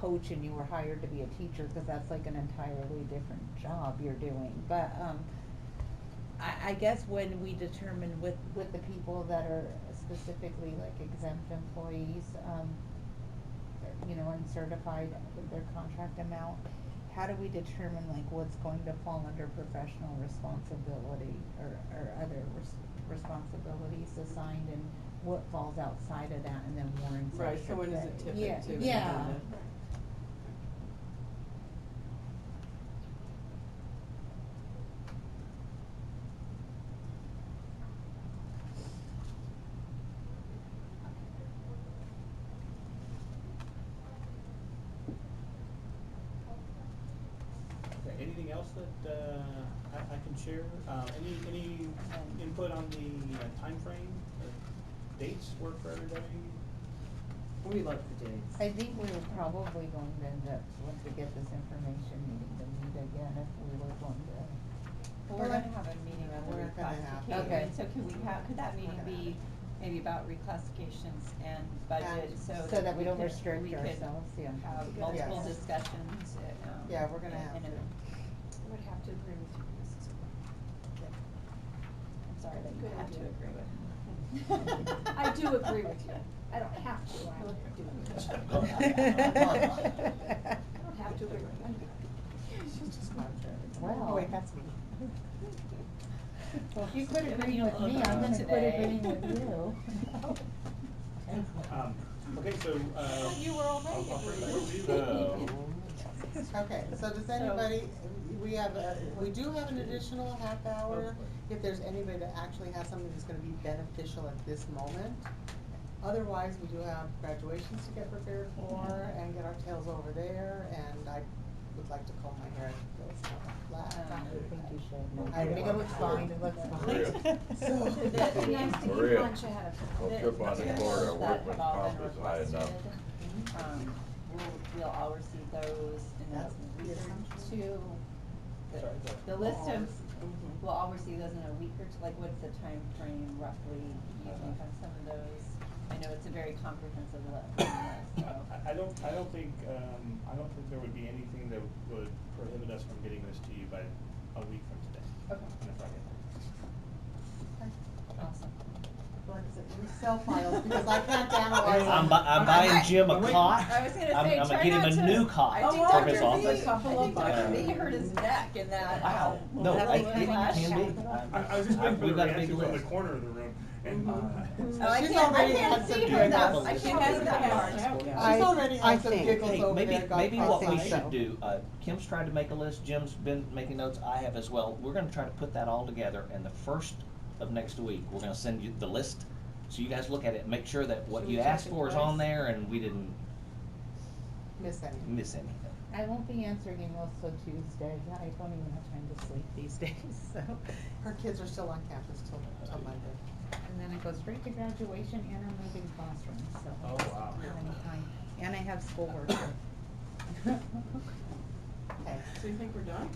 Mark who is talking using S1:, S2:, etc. S1: coach and you were hired to be a teacher, cause that's like an entirely different job you're doing, but, um, I, I guess when we determine with, with the people that are specifically like exempt employees, um, you know, and certified with their contract amount, how do we determine like what's going to fall under professional responsibility or, or other res- responsibilities assigned and what falls outside of that and then warrants are
S2: Right, so when does it tip
S1: shifted? Yeah,
S2: into?
S1: Yeah,
S3: Okay, anything else that, uh, I, I can share? Uh, any, any um, input on the uh, timeframe, The dates work for everybody?
S2: We love the dates.
S1: I think we were probably going to end up, once we get this information, needing to meet again if we were going to.
S4: Well, we're gonna have a meeting on the
S1: We're gonna have- okay.
S4: reclassification, so could we have, could that meeting
S1: We're gonna have
S4: be maybe about reclassifications and budget,
S5: And
S4: so
S1: so
S4: that
S1: that we don't
S4: could-
S1: restrict
S4: we could
S1: ourselves, yeah.
S4: Have multiple
S5: Yes.
S4: discussions, uh, um.
S5: Yeah, we're gonna
S4: in-
S5: have
S4: in a-
S5: to.
S6: I would have to agree with you, Mrs.
S4: I'm sorry that you
S6: Good
S4: have to
S6: idea.
S4: agree with.
S6: Cor- I do agree with you. I don't have to, I would do it. I don't have to agree with you.
S5: She's just contrary.
S1: Wow.
S5: Wait, that's me.
S1: Well, if you quit
S4: Yeah, but
S1: agreeing
S4: you don't
S1: with
S4: look
S1: me, I'm
S4: good
S1: gonna quit
S4: today.
S1: agreeing with you.
S3: Um, okay, so, uh.
S4: Oh, You were already
S3: I'll- I'll bring
S4: agreeing.
S3: back to you.
S5: Okay, so does
S4: So-
S5: anybody, we have, a- we do have an additional half hour. If there's anybody that actually has something that's gonna be beneficial at this moment. Otherwise, we do have graduations to get prepared for and get our tails over there, and I would like to comb my hair. It's not flat.
S1: I think you should.
S5: I
S1: think it looks fine, it looks fine.
S5: So-
S4: The-
S6: It'd be nice to
S7: Maria.
S6: get lunch ahead of time.
S7: Well,
S4: the
S7: trip on the
S4: materials
S7: Florida
S4: that
S7: workman's
S4: have all
S7: comp
S4: been
S7: is high enough.
S4: requested, Um, we'll, we'll all receive those in
S5: That's
S4: a
S5: the
S4: week or
S5: assumption.
S4: two. The-
S3: Sorry, the-
S4: The list of,
S2: Mhm.
S4: we'll all receive those in a week or two, like what's the time frame roughly you think on some of those? I know it's a very comprehensive list,
S3: I,
S4: so.
S3: I- I don't, I don't think, um, I don't think there would be anything that would prohibit us from getting this to you by a week from today.
S4: Okay.
S3: On a Friday.
S4: Awesome.
S5: Like I said, we sell files because I can't analyze.
S8: I'm, bu-
S5: them.
S8: I'm buying Jim a cot.
S4: I was gonna say,
S8: I'm, I'm
S4: try
S8: get him
S4: not
S8: a
S4: to-
S8: new cot
S4: I think
S2: Oh,
S8: for his
S4: Dr.
S2: Dr.
S8: office. Uh,
S2: B, couple
S4: I think
S2: of
S4: Dr.
S2: bucks.
S4: B hurt his neck in that.
S8: Wow.
S4: um,
S8: No,
S4: that
S8: I,
S4: was
S8: it
S4: last-
S8: can be.
S3: I, I was just waiting for
S8: We've
S3: the
S8: got a big
S3: reaction from the
S8: list.
S3: corner of the room, and, uh,
S4: Oh, I
S5: She's
S4: can't, I
S5: already
S4: can't
S5: had some
S4: see her
S8: doing
S4: though.
S8: that.
S4: I can't
S8: She's
S4: see
S8: already
S4: that
S8: had
S4: part.
S2: some.
S5: She's already
S1: I
S5: had some
S1: think-
S5: giggles
S8: Hey,
S5: over
S8: maybe,
S5: there. got
S8: maybe what we
S5: cross-eyed.
S8: should do, uh, Kim's tried to make a list, Jim's been making notes, I have as well. We're gonna try to put that all together and the first of next week, we're gonna send you the list. So you guys look at it, make sure that what
S2: Should we
S8: you
S2: check
S8: asked
S2: it
S8: for is
S2: twice?
S8: on there and we didn't
S5: Miss that.
S8: miss anything.
S1: I won't be answering emails till Tuesday, I don't even have time to sleep these days, so.
S5: Her kids are still on campus till, till Monday.
S1: And then I go straight to graduation and I'm moving classrooms, so.
S3: Oh, wow.
S1: I don't have any time. And I have schoolwork.
S2: So you think we're done?